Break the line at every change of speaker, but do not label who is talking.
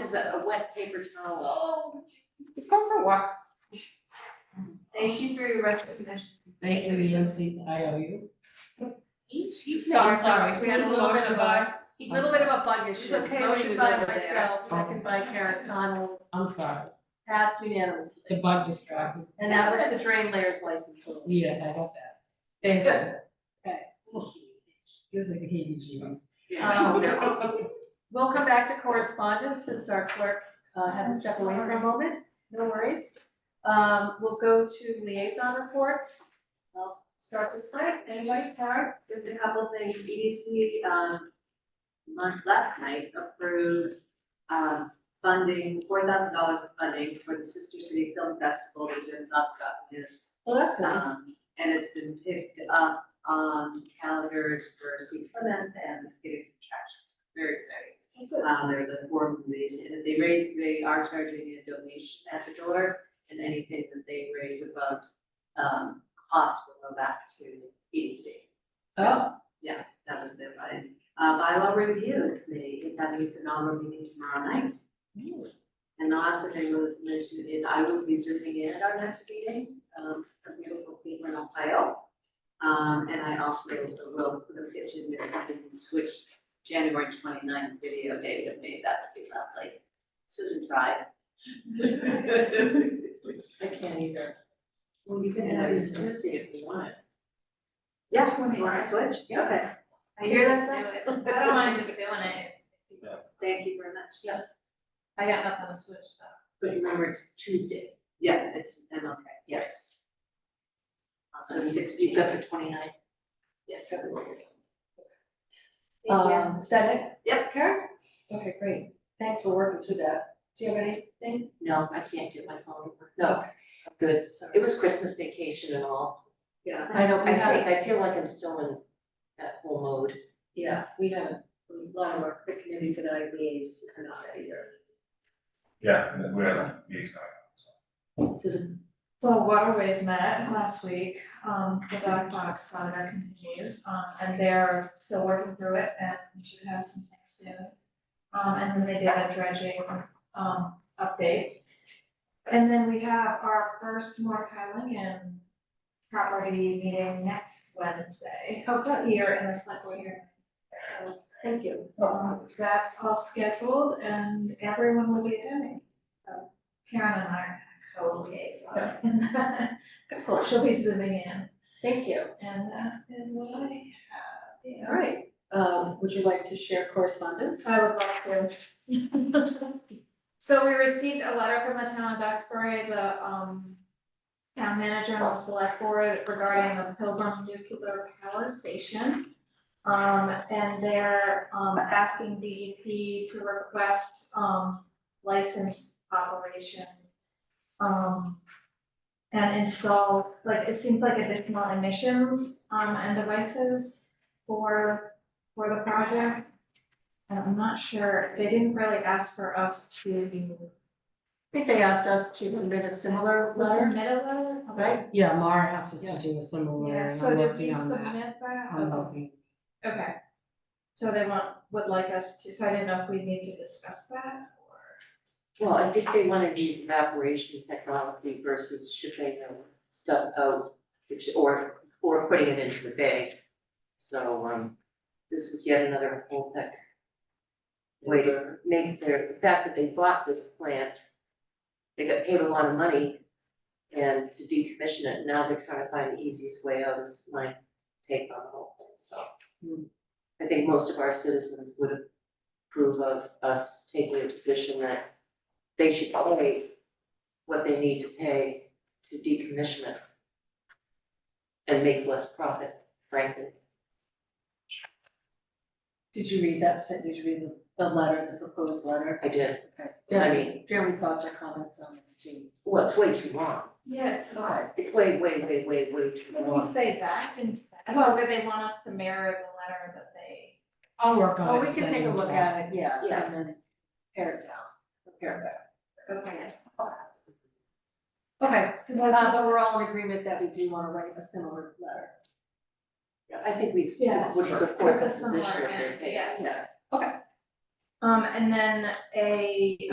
is a wet paper towel.
Oh,
It's going for a walk.
thank you for your resignation.
Thank you, Yancy, I owe you.
He's, he's.
So sorry, we had a little bit of
a,
a-
a little bit of a bug issue.
It's okay,
Motion
she was
by
over there.
myself, second by Karen Connell,
I'm sorry,
passed unanimously.
the bug distracted,
And that was the drain layers license.
Oh,
So
yeah, I got that. Thank you,
Um,
this is like a heebie jeebies.
Oh, We'll come back to correspondence since our clerk uh, had to step away for a moment, no worries. Um, We'll go to liaison reports. I'll start this way, anybody, Karen?
Just a couple things, EDC, um, month last night approved, um, funding, four thousand dollars of funding for the Sister City Film Festival, we didn't talk about this.
Well, that's nice.
Um, and it's been picked up on calendars for St. Clement and it's getting some traction, It's very exciting.
Oh,
Um, they're the four movies, and if they raise, they are charging a donation at the door, and anything that they raise above, um, cost will go back to EDC. So,
Oh.
Yeah, that was their plan. Uh, bylaw review committee, is having a phenomenal meeting tomorrow night. And the last thing I wanted to mention is I will be zooming in at our next meeting, um, from beautiful Cleveland, Ohio. Um, and I also will put a picture in there, I can switch January 29th video day with me, that would be lovely. Susan tried.
I can't either.
Well, you
can have this
Tuesday if you want. Yeah, you wanna switch? Yeah, okay. I hear that,
Just
Sam?
do it. I don't mind just doing it.
Thank you very much. Yeah.
I got nothing to switch though.
But remember, it's Tuesday.
Yeah, it's, and okay.
Yes.
So sixty.
the twenty-nine.
Yes.
Um, is that it?
Yep.
Karen? Okay, great. Thanks for working through that. Do you have anything?
No, I can't get my phone, no, I'm good, it
Sorry.
was Christmas vacation and all,
Yeah, I know, we
I
have,
think, I feel like I'm still in that whole mode.
yeah, we have a lot of our committees and IBAs are not that either.
Yeah, we have, he's not.
Susan,
Well, Waterways met last week, um, the dog box saga continues, um, and they're still working through it and we should have something soon. Um, and then they did a dredging, um, update. And then we have our first Mark Highlingham property meeting next Wednesday.
Okay,
Here in the select board here. So
thank you.
Um, that's all scheduled and everyone will be attending. So Karen and I are co-liaison.
Excellent.
She'll be zooming in
Thank you.
and that is what I have, you know.
All right, um, would you like to share correspondence?
I would love to. So we received a letter from the town of Duxbury, the um town manager and the select board regarding the Pilgrim Nuclear Power Station. Um, and they're um asking DEP to request um license operation. Um, and install, like, it seems like additional emissions um and devices for for the project. And I'm not sure, they didn't really ask for us to
I think they asked us to submit a similar letter,
submit a letter,
right?
Yeah, Mara asked us to do a similar,
Yeah,
and
so
I'm
did we
working on
submit
that,
that?
I'm hoping.
Okay. So they want, would like us to, so I didn't know if we need to discuss that or.
well, I think they wanted to use evaporation technology versus shipping the stuff out, which, or, or putting it into the bay. So, um, this is yet another whole tech way to make their, the fact that they bought this plant, they got paid a lot of money and to decommission it, now they're trying to find the easiest way out is my take on the whole thing, so.
Hmm.
I think most of our citizens would approve of us taking a position that they should pay what they need to pay to decommission it and make less profit, frankly.
Did you read that, sen- did you read the- the letter, the proposed letter?
I did,
Okay.
I mean,
Jeremy thoughts or comments on this, Jean?
well, it's way too long,
Yes.
it's way, way, way, way, way too
What do we
long.
say that instead? Well, do they want us to mirror the letter that they?
I'll work on it.
Oh, we can
send
take a
you
look
that.
at it, yeah,
Yeah.
and then pare it down, prepare it back.
Okay.
Okay, uh, but we're all in agreement that we do wanna write a similar letter.
I think we s-
Yeah.
would support the
Put this
position of
somewhere
their
in,
pay,
yes.
yeah.
Um, and then a